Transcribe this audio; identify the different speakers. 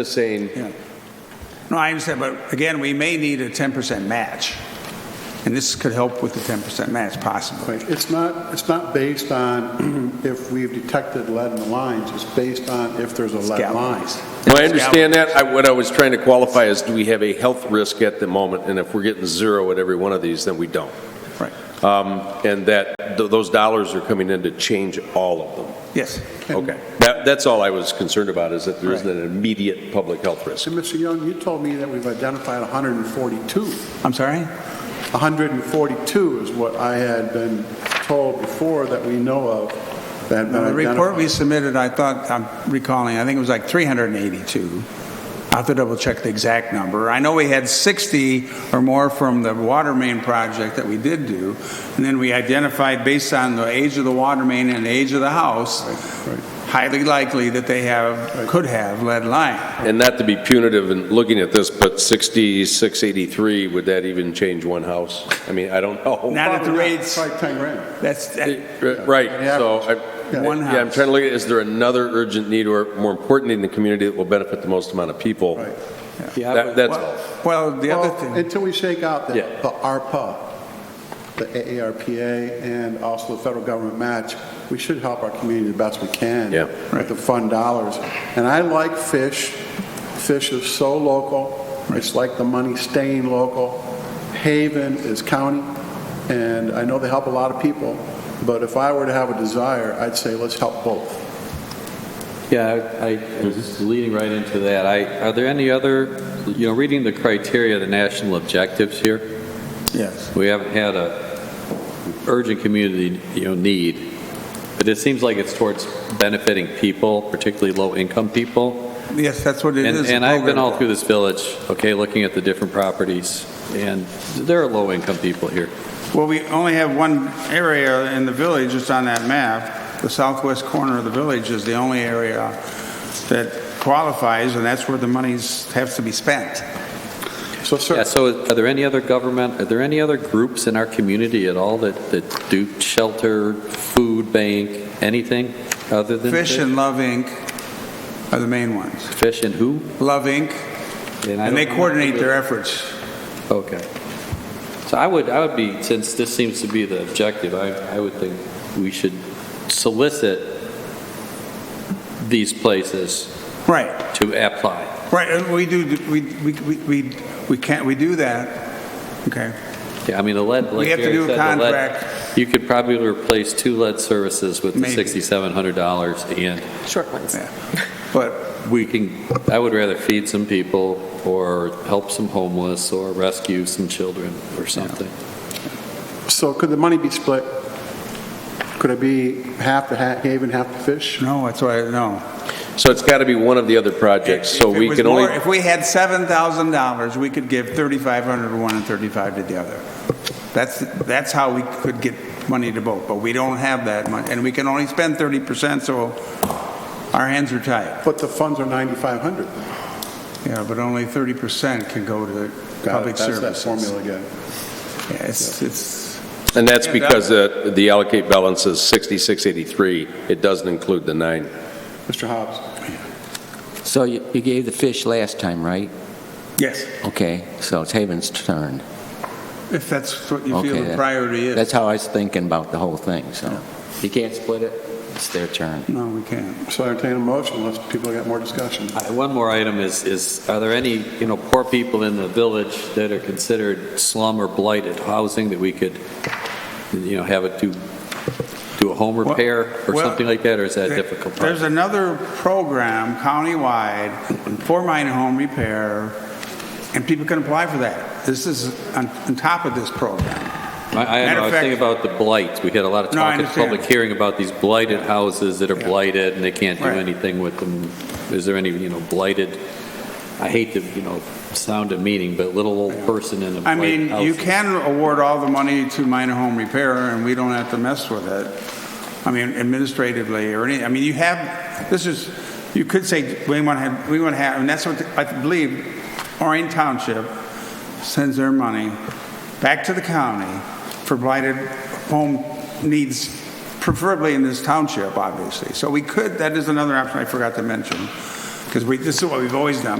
Speaker 1: Just saying,
Speaker 2: Yeah. No, I understand, but again, we may need a 10% match, and this could help with the 10% match possibly.
Speaker 3: Right, it's not, it's not based on if we've detected lead in the lines, it's based on if there's a lead line.
Speaker 2: Galvanized.
Speaker 1: well, I understand that. I- What I was trying to qualify is, do we have a health risk at the moment? And if we're getting zero at every one of these, then we don't.
Speaker 2: Right,
Speaker 1: Um, And that, th- those dollars are coming in to change all of them.
Speaker 2: yes.
Speaker 1: Okay. That, that's all I was concerned about, is that there isn't an immediate public health risk.
Speaker 3: So, Mr. Young, you told me that we've identified 142.
Speaker 2: I'm sorry?
Speaker 3: 142 is what I had been told before that we know of that had been
Speaker 2: The report we
Speaker 3: identified.
Speaker 2: submitted, I thought, I'm recalling, I think it was like 382. I'll have to double check the exact number. I know we had 60 or more from the water main project that we did do, and then we identified based on the age of the water main and the age of the house, highly likely that they have, could have lead line.
Speaker 1: And not to be punitive in looking at this, but 6683, would that even change one house? I mean, I don't know.
Speaker 2: Not at the rates,
Speaker 3: It's like 10 grand.
Speaker 2: that's, that-
Speaker 1: Uh, Right, so, I- yeah,
Speaker 2: One
Speaker 1: I'm
Speaker 2: house.
Speaker 1: trying to look at, is there another urgent need or more importantly in the community that will benefit the most amount of people?
Speaker 3: Right.
Speaker 4: Uh,
Speaker 1: That- That's all.
Speaker 2: well, the other
Speaker 3: Well,
Speaker 2: thing,
Speaker 3: Until we shake out the
Speaker 1: Yeah.
Speaker 3: the ARPA, the AARPA, and also the federal government match, we should help our community the best we can.
Speaker 1: Yeah.
Speaker 3: With the fund dollars. And I like fish. Fish is so local. It's like the money staying local. Haven is county, and I know they help a lot of people, but if I were to have a desire, I'd say let's help both.
Speaker 4: Yeah, I, I was just leading right into that. I, are there any other, you know, reading the criteria, the national objectives here,
Speaker 2: yes,
Speaker 4: we haven't had a urgent community, you know, need, but it seems like it's towards benefiting people, particularly low-income people.
Speaker 2: yes, that's what it
Speaker 4: And,
Speaker 2: is.
Speaker 4: and I've been all through this village, okay, looking at the different properties, and there are low-income people here.
Speaker 2: Well, we only have one area in the village, it's on that map. The southwest corner of the village is the only area that qualifies, and that's where the monies have to be spent.
Speaker 3: So certainly,
Speaker 4: Yeah, so are there any other government, are there any other groups in our community at all that, that do shelter, food bank, anything other than?
Speaker 2: Fish and Love Inc. are the main ones.
Speaker 4: Fish and who?
Speaker 2: Love Inc.,
Speaker 4: I
Speaker 2: and they
Speaker 4: don't-
Speaker 2: coordinate their efforts.
Speaker 4: Okay. So I would, I would be, since this seems to be the objective, I, I would think we should solicit these places
Speaker 2: Right.
Speaker 4: to apply.
Speaker 2: Right, and we do, we, we, we- we, we can't, we do that, okay?
Speaker 4: Yeah, I mean, the lead, like
Speaker 2: We have to
Speaker 4: Jerry
Speaker 2: do a
Speaker 4: said, the lead-
Speaker 2: contract.
Speaker 4: You could probably replace two lead services with the
Speaker 2: Maybe.
Speaker 4: $6,700 and
Speaker 5: short ones.
Speaker 2: Yeah. But
Speaker 4: we can, I would rather feed some people or help some homeless or rescue some children or something.
Speaker 3: so could the money be split? Could it be half to Ha- Haven, half to Fish?
Speaker 2: No, that's why, no.
Speaker 1: So it's got to be one of the other projects, so
Speaker 2: If it
Speaker 1: we
Speaker 2: was
Speaker 1: can only.
Speaker 2: more- If we had $7,000, we could give 3,500 to one and 35 to the other. That's, that's how we could get money to both, but we don't have that much, and we can only spend 30%, so our hands are tied.
Speaker 3: But the funds are 9,500.
Speaker 2: Yeah, but only 30% can go to
Speaker 3: Got it.
Speaker 2: public
Speaker 3: That's
Speaker 2: services.
Speaker 3: that formula again.
Speaker 2: Yeah, It's, it's,
Speaker 1: And that's
Speaker 2: Yeah,
Speaker 1: because uh, the allocate balance is 6683. It doesn't include the nine.
Speaker 3: Mr. Hobbs?
Speaker 6: So you you gave the fish last time, right?
Speaker 2: yes,
Speaker 6: Okay, so it's Haven's turn.
Speaker 2: if that's what you
Speaker 6: Okay,
Speaker 2: feel the
Speaker 6: that-
Speaker 2: priority is.
Speaker 6: That's how I was thinking about the whole thing, so. You can't split it, it's their turn.
Speaker 2: No, we can't.
Speaker 3: So I entertain a motion unless people got more discussion.
Speaker 4: Uh, One more item is, is are there any, you know, poor people in the village that are considered slum or blighted housing that we could, you know, have it do, do a home
Speaker 2: Well-
Speaker 4: repair or
Speaker 2: well,
Speaker 4: something like that, or is that a
Speaker 2: There-
Speaker 4: difficult?
Speaker 2: There's
Speaker 4: project?
Speaker 2: another program countywide for mine home repair, and people can apply for that. This is on, on top of this program.
Speaker 4: I, I don't
Speaker 2: matter
Speaker 4: know, I
Speaker 2: of
Speaker 4: was
Speaker 2: fact-
Speaker 4: thinking about the blight. We had a lot of
Speaker 2: No, I
Speaker 4: talk at the public
Speaker 2: understand.
Speaker 4: hearing about these blighted houses that are
Speaker 2: Yeah.
Speaker 4: blighted and they can't do
Speaker 2: Right.
Speaker 4: anything with them. Is there any, you know, blighted, I hate to, you know, sound demeaning, but little old person in a
Speaker 2: I
Speaker 4: blighted
Speaker 2: mean, you
Speaker 4: house.
Speaker 2: can award all the money to mine home repair, and we don't have to mess with it. I mean, administratively or any, I mean, you have, this is, you could say, we want to have, we want to have, and that's what I believe Orion Township sends their money back to the county for blighted home needs, preferably in this township, obviously. So we could, that is another option I forgot to mention. Because we, this is what we've always done.